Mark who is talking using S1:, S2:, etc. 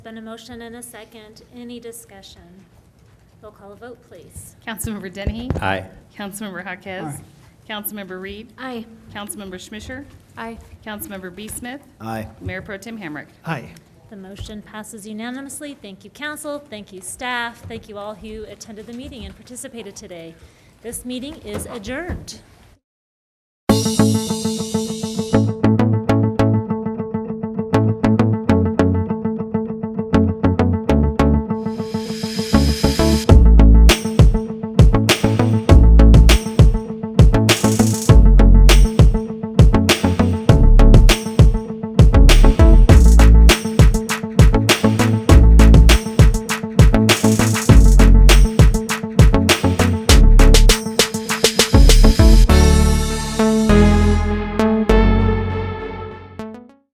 S1: Been a motion and a second. Any discussion? Roll call a vote, please.
S2: Councilmember Dennehy?
S3: Aye.
S2: Councilmember Haquez?
S4: Aye.
S2: Councilmember Reed?
S1: Aye.
S2: Councilmember Schmisher?
S1: Aye.
S2: Councilmember B. Smith?
S3: Aye.
S2: Mayor Pro Tem Hamrick?
S4: Aye.
S1: The motion passes unanimously. Thank you, council. Thank you, staff. Thank you all who attended the meeting and participated today. This meeting is adjourned.